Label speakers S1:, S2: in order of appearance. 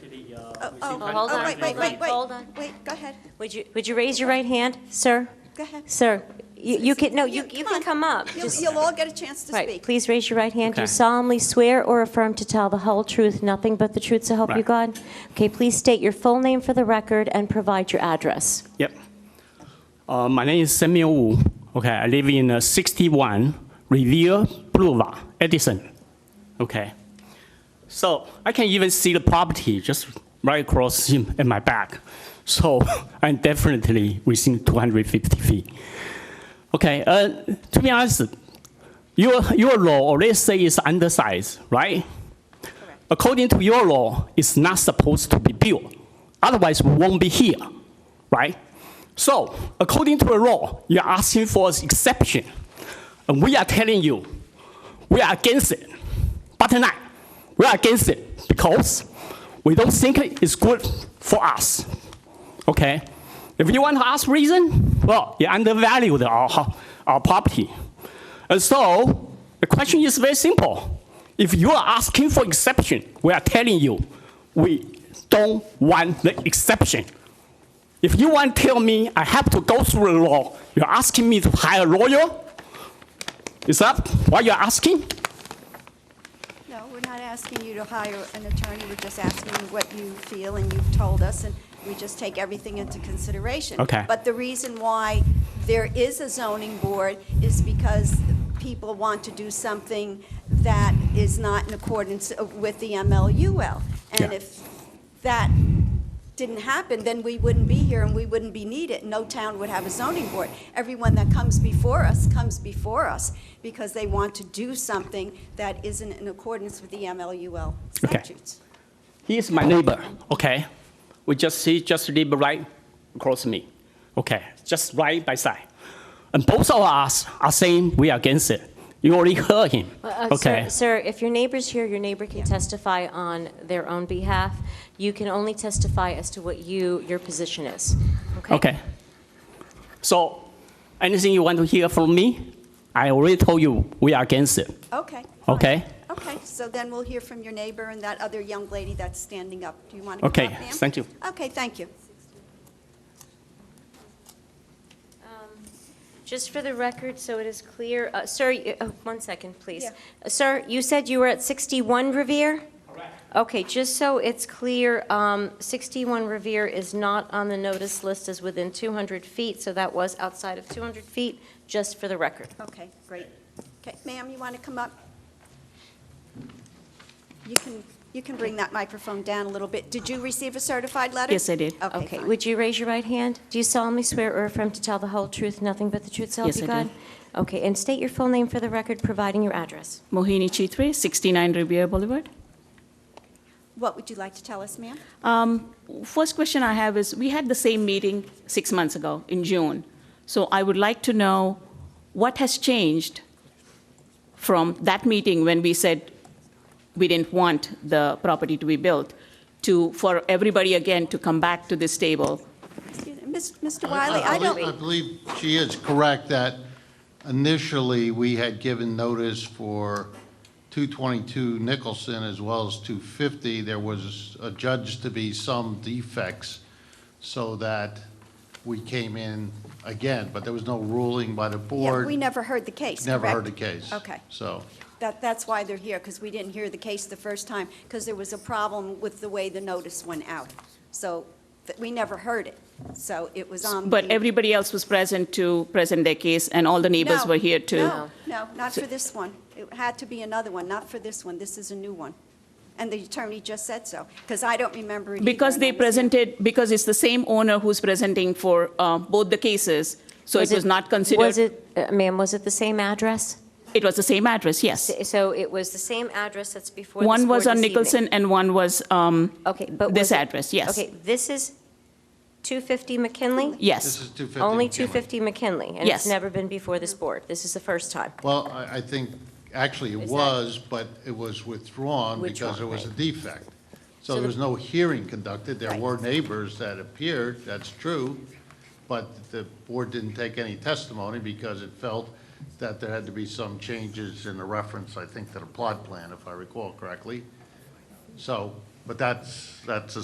S1: oh, oh,
S2: Well, hold
S1: oh,
S2: on,
S1: wait, wait,
S2: hold on,
S1: wait, wait.
S2: hold on.
S1: Wait, go ahead,
S2: Would you, would you raise your right hand, sir?
S1: go ahead.
S2: Sir, you you can, no, you
S1: You-
S2: you
S1: come
S2: can
S1: on.
S2: come up.
S1: You'll,
S2: Just-
S1: you'll all get a chance to
S2: Right,
S1: speak.
S2: please raise your right hand. Do you
S3: Okay.
S2: solemnly swear or affirm to tell the whole truth, nothing but the truth, so help you God? Okay, please state your full name for the record and provide your address.
S3: Yep. Uh, my name is Samuel Wu. Okay, I live in uh, 61 Revere Boulevard, Edison. Okay. So I can even see the property just right across in, in my back. So I'm definitely within 250 feet. Okay, uh, to be honest, your, your law already say it's undersized, right? According to your law, it's not supposed to be built. Otherwise, we won't be here, right? So, according to the law, you're asking for an exception. And we are telling you, we are against it. But not, we are against it because we don't think it's good for us. Okay? If you want to ask reason, well, you undervalued our, ho- our property. And so, the question is very simple. If you are asking for exception, we are telling you, we don't want the exception. If you want to tell me I have to go through the law, you're asking me to hire a lawyer? Is that what you're asking?
S1: No, we're not asking you to hire an attorney, we're just asking you what you feel, and you've told us, and we just take everything into consideration.
S3: Okay.
S1: But the reason why there is a zoning board is because people want to do something that is not in accordance with the MLUL. And
S3: Yeah.
S1: if that didn't happen, then we wouldn't be here and we wouldn't be needed. No town would have a zoning board. Everyone that comes before us comes before us because they want to do something that isn't in accordance with the MLUL
S3: Okay.
S1: statutes.
S3: He is my neighbor, okay? We just, he just live right across me, okay? Just right by side. And both of us are saying we are against it. You already heard him,
S2: Uh, sir-
S3: okay?
S2: Sir, if your neighbor's here, your neighbor can testify on their own behalf. You can only testify as to what you, your position is, okay?
S3: Okay. So, anything you want to hear from me, I already told you we are against it,
S1: Okay. fine.
S3: okay?
S1: Okay, so then we'll hear from your neighbor and that other young lady that's standing up. Do you want to come
S3: Okay,
S1: up, ma'am?
S3: thank you.
S1: Okay, thank you.
S2: Just for the record, so it is clear, uh, sir, you- oh, one second, please.
S1: Yeah.
S2: Uh, Sir, you said you were at 61 Revere? Okay, just so it's clear, um, 61 Revere is not on the notice list as within 200 feet, so that was outside of 200 feet, just for the record.
S1: Okay, great. Okay, ma'am, you want to come up? You can, you can bring that microphone down a little bit. Did you receive a certified letter?
S4: Yes, I did.
S1: Okay,
S2: Okay,
S1: fine.
S2: would you raise your right hand? Do you solemnly swear or affirm to tell the whole truth, nothing but the truth, so help
S4: Yes,
S2: you
S4: I
S2: God?
S4: do.
S2: Okay, and state your full name for the record, providing your address.
S4: Mohini Chitre, 69 Riviera Boulevard.
S1: What would you like to tell us, ma'am?
S4: Um, First question I have is, we had the same meeting six months ago in June. So I would like to know what has changed from that meeting when we said we didn't want the property to be built to, for everybody again to come back to this table.
S1: Excuse me, Miss- Mr. Wiley, I
S5: believe- I
S1: don't,
S5: believe she is correct that initially, we had given notice for 222 Nicholson as well as 250. There was adjudged to be some defects, so that we came in again, but there was no ruling by the
S1: yeah,
S5: board.
S1: we never heard the case,
S5: Never heard the
S1: correct?
S5: case.
S1: Okay.
S5: So.
S1: That, that's why they're here, because we didn't hear the case the first time, because there was a problem with the way the notice went out. So, th- we never heard it, so it was on.
S4: But
S1: the-
S4: everybody else was present to present their case, and all the neighbors
S1: No,
S4: were here too.
S1: No, no, not for this one. It had to be another one, not for this one. This is a new one. And the attorney just said so, because I don't remember it either,
S4: Because
S1: and I
S4: they
S1: was there.
S4: presented, because it's the same owner who's presenting for uh, both the cases, so it was not
S2: Was
S4: considered,
S2: it, uh, ma'am, was it the same address?
S4: it was the same address, yes.
S2: So it was the same address that's before this
S4: One
S2: board
S4: was on
S2: this evening.
S4: Nicholson and one was, um,
S2: Okay, but
S4: this
S2: was it-
S4: address, yes.
S2: Okay, this is 250 McKinley?
S5: This is
S4: yes.
S5: 250.
S2: Only
S5: McKinley.
S2: 250 McKinley? And it's
S4: Yes.
S2: never been before this board? This is the first time?
S5: Well, I, I think, actually, it
S2: Is that-
S5: was, but it was withdrawn because
S2: Withdrawn,
S5: there was a
S2: right.
S5: defect. So
S2: So
S5: there
S2: the-
S5: was no hearing conducted. There
S1: Right.
S5: were neighbors that appeared, that's true, but the board didn't take any testimony because it felt that there had to be some changes in the reference, I think, to the plot plan, if I recall correctly. So, but that's, that's a